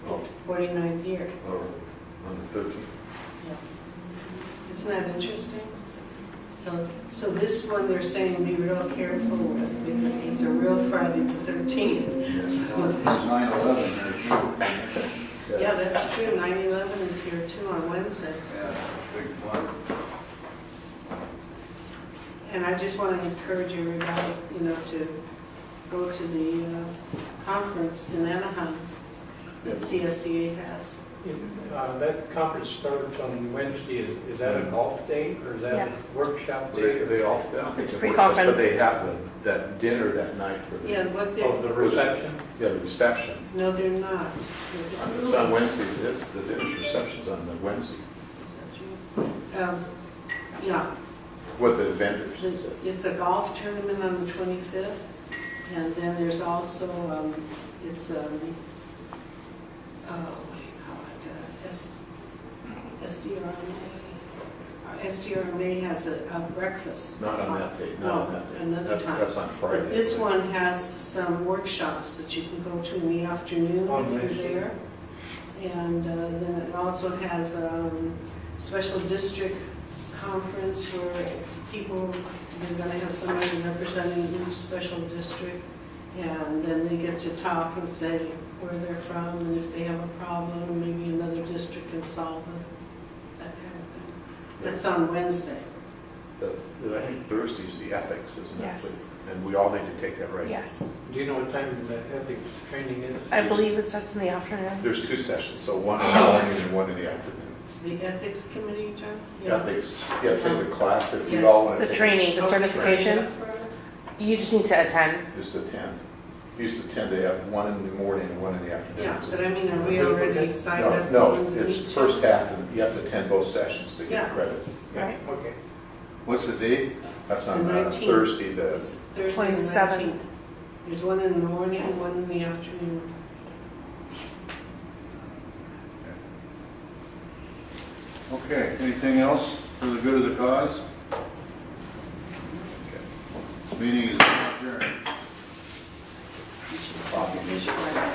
49 here. or on the thirteenth. Isn't that interesting? So, so this one they're saying be real careful with because it's a real Friday the 13th. Nine eleven there too. Yeah, that's true. 9/11 is here too on Wednesday. Yeah, big one. And I just want to encourage everybody, you know, to go to the uh, conference in Anaheim that CSDA has. Uh, That conference starts on Wednesday. Is is that a golf day or is that Yes. a workshop Mm-hmm. They, day? they all down. It's They work, pre-conference. But they have the- that dinner that night for the, Yeah, yeah, Oh, what Of they're, Oh, the reception? the reception. no, they're not. It's on Wednesday, it's, the dinner reception's on the Wednesday Um, Yeah, with the vendors. it There's- says. It's a golf tournament on the 25th, and then there's also, um, it's, um, uh, what do you call it, uh, S- SDRMA? Our SDRMA has a a breakfast. Not on that day, No, not on that day. another That's- time. That's on Friday. But this one has some workshops that you can go to in the afternoon On if you're Wednesday. there. And uh, then it also has um, special district conference where people, they're gonna have somebody representing each special district. And then they get to talk and say where they're from and if they have a problem, maybe another district can solve it, that kind of thing. That's on Wednesday. The- I think Thursday's the ethics, isn't it? Yes. And we all need to take that right. Yes, Do you know what time the ethics training is? I believe it starts in the afternoon. There's two sessions, so one in the morning and one in the afternoon. The ethics committee, John? Yeah. Ethics, yeah, take the class if we all want to The take it. training, the Oh, Okay. certification, you just need to attend. Just attend. Used to attend, they have one in the morning and one in the afternoon. Yeah, but I mean, are we already signed No, up? it's- no, for the it's meeting? first half, and you have to attend both sessions to get Yeah. credit. Right. Okay. What's the date? That's on The uh, 19th. Thursday, the, It's Thursday the 27th. 19th. There's one in the morning and one in the afternoon. Okay, anything else for the good of the cause? Meeting is adjourned.